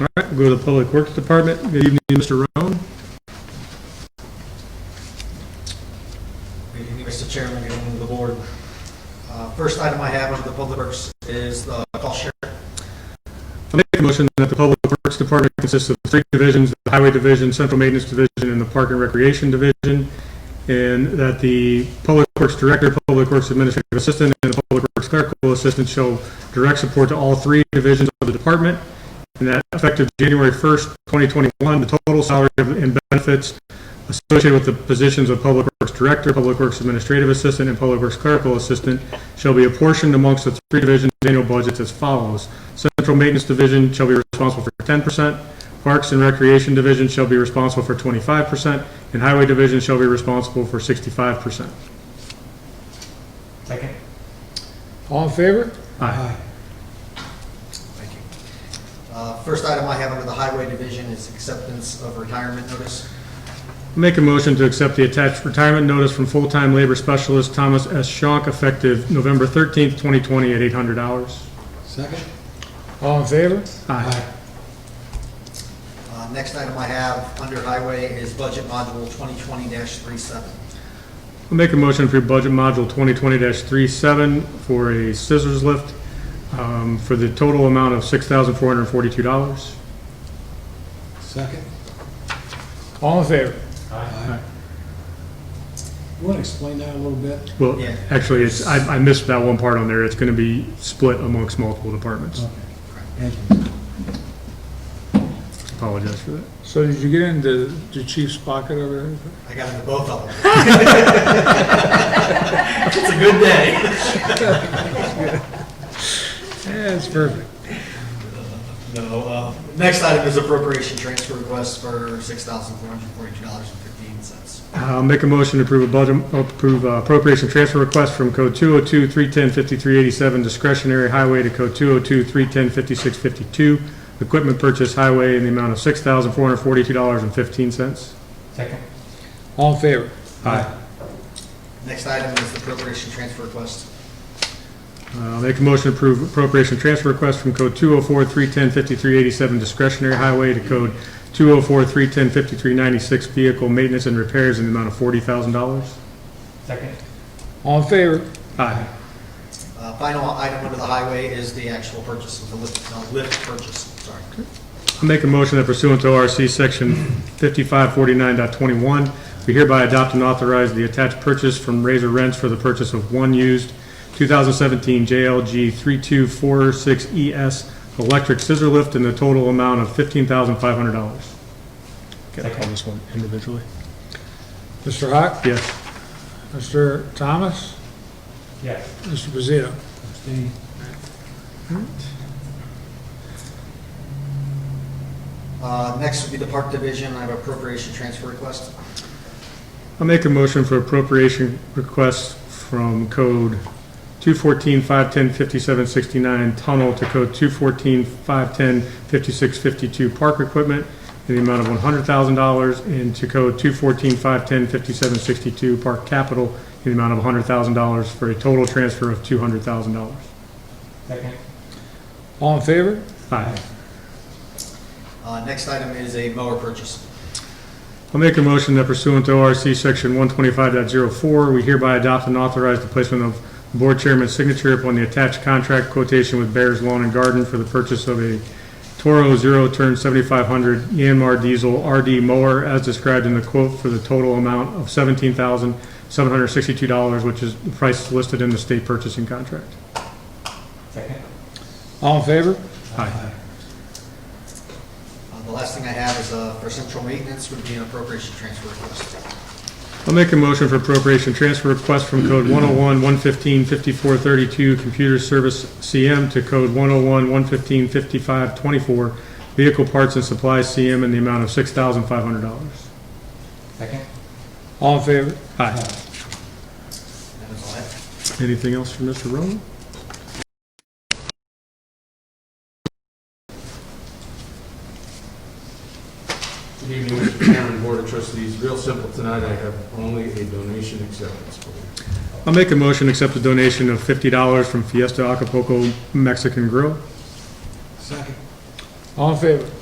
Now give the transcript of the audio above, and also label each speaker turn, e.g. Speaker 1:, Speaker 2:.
Speaker 1: All right, we'll go to the Public Works Department. Good evening, Mr. Roan.
Speaker 2: Good evening, Mr. Chairman, good evening to the board. Uh, First item I have under the public works is the cost share.
Speaker 1: I make a motion that the Public Works Department consists of three divisions, the Highway Division, Central Maintenance Division, and the Park and Recreation Division, and that the Public Works Director, Public Works Administrative Assistant, and the Public Works Clerical Assistant shall direct support to all three divisions of the department, and that effective January 1st, 2021, the total salary and benefits associated with the positions of Public Works Director, Public Works Administrative Assistant, and Public Works Clerical Assistant shall be apportioned amongst the three divisions' annual budgets as follows. Central Maintenance Division shall be responsible for 10%, Parks and Recreation Division shall be responsible for 25%, and Highway Division shall be responsible for 65%.
Speaker 2: Second.
Speaker 3: All in favor?
Speaker 1: Aye.
Speaker 2: Thank you. Uh, First item I have under the highway division is acceptance of retirement notice.
Speaker 1: Make a motion to accept the attached retirement notice from full-time labor specialist Thomas S. Schonk, effective November 13th, 2020, at $800.
Speaker 3: Second. All in favor?
Speaker 1: Aye.
Speaker 2: Uh, Next item I have under highway is budget module 2020-37.
Speaker 1: I'll make a motion for budget module 2020-37 for a scissors lift um, for the total amount of $6,442.
Speaker 3: Second. All in favor?
Speaker 1: Aye.
Speaker 3: You want to explain that a little bit?
Speaker 1: Well,
Speaker 2: Yeah.
Speaker 1: actually, it's, I I missed that one part on there. It's going to be split amongst multiple departments.
Speaker 3: Thank you.
Speaker 1: Apologize for that.
Speaker 4: So did you get into the chief's pocket over there?
Speaker 2: I got into both of them. It's a good day.
Speaker 4: Yeah, that's perfect.
Speaker 2: No, uh, next item is appropriation transfer request for $6,442.15.
Speaker 1: I'll make a motion to approve a budget, approve uh, appropriation transfer request from code 202-310-5387 discretionary highway to code 202-310-5652 equipment purchase highway in the amount of $6,442.15.
Speaker 4: All in favor?
Speaker 1: Aye.
Speaker 2: Next item is the appropriation transfer request.
Speaker 1: Uh, Make a motion to approve appropriation transfer request from code 204-310-5387 discretionary highway to code 204-310-5396 vehicle maintenance and repairs in the amount of $40,000.
Speaker 4: All in favor?
Speaker 1: Aye.
Speaker 2: Uh, Final item under the highway is the actual purchase, of the lift, uh, lift purchase, sorry.
Speaker 1: I make a motion that pursuant to ORC Section 5549.21, we hereby adopt and authorize the attached purchase from Razor Rents for the purchase of one used 2017 JLG 3246ES E electric scissor lift in the total amount of $15,500. Got to call this one individually.
Speaker 4: Mr. Hawk?
Speaker 1: Yes.
Speaker 4: Mr. Thomas? Yes. Mr. Pizzito?
Speaker 1: Hmm?
Speaker 2: Uh, Next would be the Park Division, I have appropriation transfer request.
Speaker 1: I'll make a motion for appropriation requests from code 214-510-5769 tunnel to code 214-510-5652 park equipment in the amount of $100,000 and to code 214-510-5762 park capital in the amount of $100,000 for a total transfer of $200,000.
Speaker 4: All in favor?
Speaker 1: Aye.
Speaker 2: Uh, Next item is a mower purchase.
Speaker 1: I'll make a motion that pursuant to ORC Section 125.04, we hereby adopt and authorize the placement of Board Chairman's signature upon the attached contract quotation with Bears Lawn and Garden for the purchase of a Toro zero-turn 7500 Yanmar diesel RD mower as described in the quote for the total amount of $17,762, which is the price listed in the state purchasing contract.
Speaker 4: All in favor?
Speaker 1: Aye.
Speaker 2: Uh, The last thing I have is uh, for central maintenance would be an appropriation transfer request.
Speaker 1: I'll make a motion for appropriation transfer request from code 101, 115, 5432, computer service CM to code 101, 115, 5524, vehicle parts and supplies CM in the amount of $6,500.
Speaker 4: All in favor?
Speaker 1: Aye.
Speaker 2: That is all I have.
Speaker 1: Anything else from Mr. Rowan?
Speaker 5: Good evening, Mr. Chairman, Board of Trustees. Real simple tonight, I have only a donation acceptance. for you.
Speaker 1: I'll make a motion to accept a donation of $50 from Fiesta Acapulco Mexican Grill.
Speaker 3: Second.
Speaker 4: All in favor?